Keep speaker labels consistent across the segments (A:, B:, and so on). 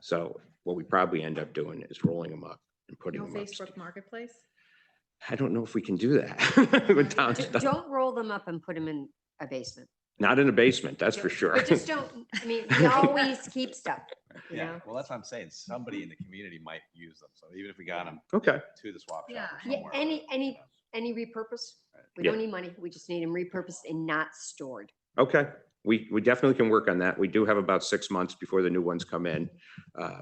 A: So what we probably end up doing is rolling them up and putting
B: No
A: them up.
B: Facebook Marketplace?
A: I don't know if we can do that. with town
C: Just
A: stuff.
C: Don't roll them up and put them in a basement.
A: Not in a basement, that's for sure.
C: But just don't, I mean, we always keep stuff, you
D: Yeah,
C: know?
D: well, that's what I'm saying. Somebody in the
B: Mm-hmm.
D: community might use them. So even if we got them
A: Okay,
D: to the swap shop
B: Yeah.
D: or
C: Yeah,
D: somewhere.
C: any-
D: you
C: any-
D: know.
C: Any repurpose, we
A: Yeah.
C: don't need money. We just need them repurposed and not stored.
A: okay. We, we definitely can work on that. We do have about six months before the new ones come in. Uh,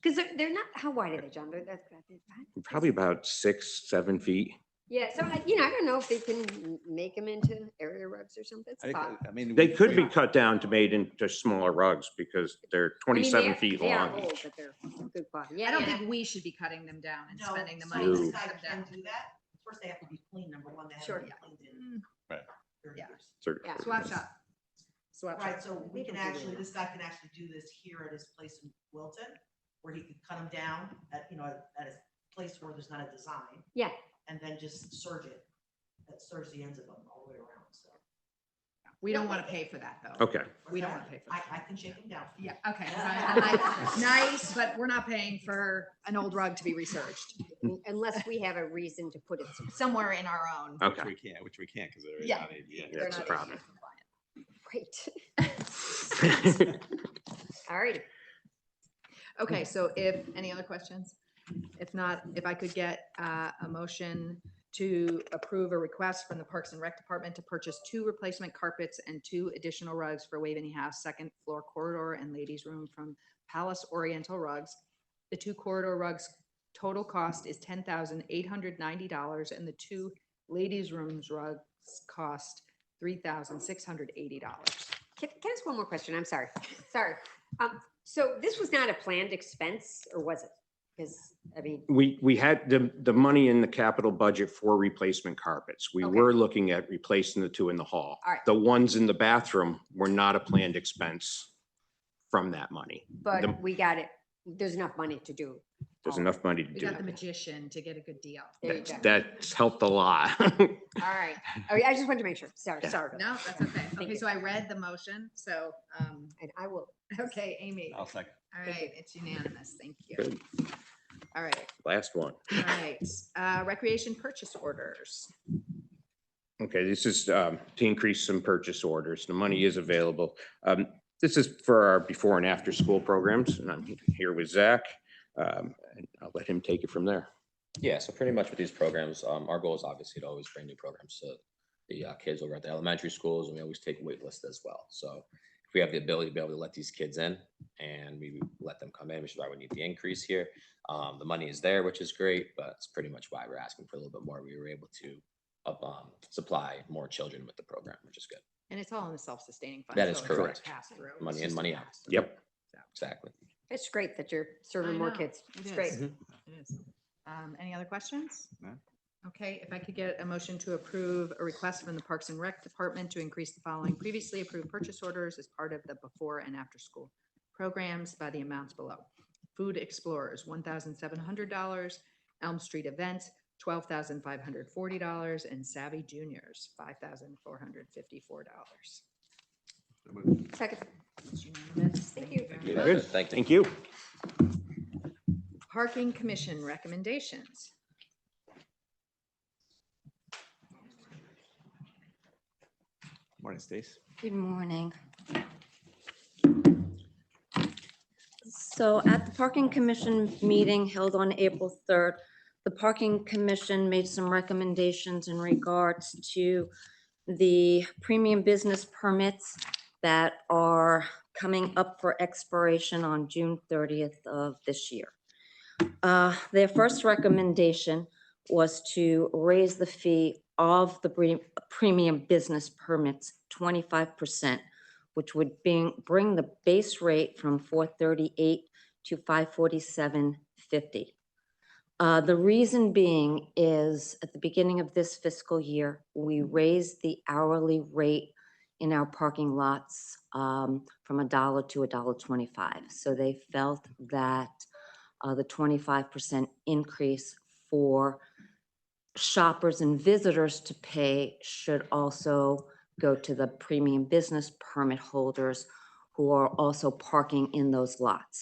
C: Because they're, they're not, how wide are they, John? They're, that's, about this high?
A: Probably about six, seven feet.
C: yeah, so like, you know, I don't know if they can m- make them into area rugs or something. It's
D: I
C: a
D: think,
C: thought.
D: uh, I mean.
A: They
D: we-
A: could
D: we-
A: be cut down to made into smaller rugs because they're
C: I mean, they
A: twenty-seven
C: are-
A: feet
C: they are
A: long
C: old,
A: each.
C: but they're good quality.
B: I
C: Yeah,
B: don't
C: yeah.
B: think we should be cutting them down and
E: No,
B: spending the
E: so
B: money
A: No.
B: to
E: this
B: cut
E: guy
B: them down.
E: Can do that. First, they have to be clean, number one, they
C: Sure.
E: haven't been cleaned in
B: Mm,
E: thirty
B: Yeah.
E: years.
A: Sort of-
C: Yeah.
B: Swap shop. Swap shop.
E: Right, so we can
C: don't do
E: actually,
C: that.
E: this guy can actually do this here at his place in Wilton, where he could cut them down at, you know, at a place where there's not a design.
C: Yeah.
E: And then just serge it, that serge the ends of them all the way around, so.
B: We don't want to pay for that, though.
A: Okay,
B: We don't wanna pay for
E: I,
B: that.
E: I can shake them down.
B: Yeah, okay. so I'm like, Nice, but we're not paying for an old rug to be researched
C: Un- Unless we have a reason to put it somewhere.
B: somewhere in our own.
D: Which
A: okay.
D: we can't, which we can't because they're
B: Yeah.
D: not ADA.
B: They're
A: That's a
B: not
A: problem.
B: ADA compliant.
C: Great. All right.
B: Okay, so if, any other questions? If not, if I could get uh, a motion to approve a request from the Parks and Rec Department to purchase two replacement carpets and two additional rugs for Waveney House second floor corridor and ladies room from Palace Oriental Rugs. The two corridor rugs total cost is ten thousand eight hundred ninety dollars and the two ladies rooms rugs cost three thousand six hundred eighty dollars.
C: Can, can I ask one more question? I'm sorry, sorry. Um, so this was not a planned expense, or was it? Because, I mean,
A: We, we had the, the money in the capital budget for replacement carpets. We
C: Okay.
A: were looking at replacing the two in the hall.
C: All right.
A: The ones in the bathroom were not a planned expense from that money. The-
C: but we got it. There's enough money to do.
A: There's
C: Oh.
A: enough money to
B: We
A: do.
B: got the
A: that.
B: magician to get a good deal.
C: There you
A: That's-
C: go.
A: That's helped a lot.
C: All right. Oh, yeah, I just wanted to make sure. Sorry,
A: Mm-hmm. Yeah.
C: sorry. about
B: No,
C: that.
B: that's okay.
C: Thank
B: Okay,
C: you.
B: so I read the motion, so, um,
C: And I will.
B: okay, Amy.
D: I'll
B: All
D: second.
B: right, it's unanimous. Thank you.
A: Good.
B: All right,
A: Last one.
B: all right. Uh, recreation purchase orders.
A: Okay, this is um, to increase some purchase orders. The money is available. Um, This is for our before and after school programs, and I'm here with Zach. um, and I'll let him take it from there.
F: Yeah, so pretty much with these programs, um, our goal is obviously to always bring new programs to the uh, kids over at the elementary schools, and we always take wait lists as well. So if we have the ability to be able to let these kids in and we let them come in, which is why we need the increase here. Um, the money is there, which is great, but it's pretty much why we're asking for a little bit more. We were able to up, um, supply more children with the program, which is good.
B: And it's all in the self-sustaining fund.
F: That is
B: so it's not
F: correct.
B: pass through, it's
F: Money in,
B: just a
F: money out.
B: pass through.
A: Yep.
F: Exactly.
C: It's great that you're
B: I
C: serving more
B: know.
C: kids.
B: It
C: It's
B: is.
C: great.
B: It is. Um, any other questions?
D: No.
B: Okay, if I could get a motion to approve a request from the Parks and Rec Department to increase the following previously approved purchase orders as part of the before and after school programs by the amounts below. Food Explorers, one thousand seven hundred dollars, Elm Street Events, twelve thousand five hundred forty dollars, and Savvy Juniors, five thousand four hundred fifty-four dollars.
C: Second, Thank you.
B: very much.
A: Good.
F: Thank you.
A: Thank you.
B: Parking Commission recommendations.
D: Morning, Stace.
G: Good morning. So at the Parking Commission meeting held on April 3rd, the Parking Commission made some recommendations in regards to the premium business permits that are coming up for expiration on June 30th of this year. Uh, Their first recommendation was to raise the fee of the pre- premium business permits twenty-five percent, which would bring, bring the base rate from four thirty-eight to five forty-seven fifty. Uh, the reason being is at the beginning of this fiscal year, we raised the hourly rate in our parking lots, um, from a dollar to a dollar twenty-five. So they felt that, uh, the twenty-five percent increase for shoppers and visitors to pay should also go to the premium business permit holders who are also parking in those lots.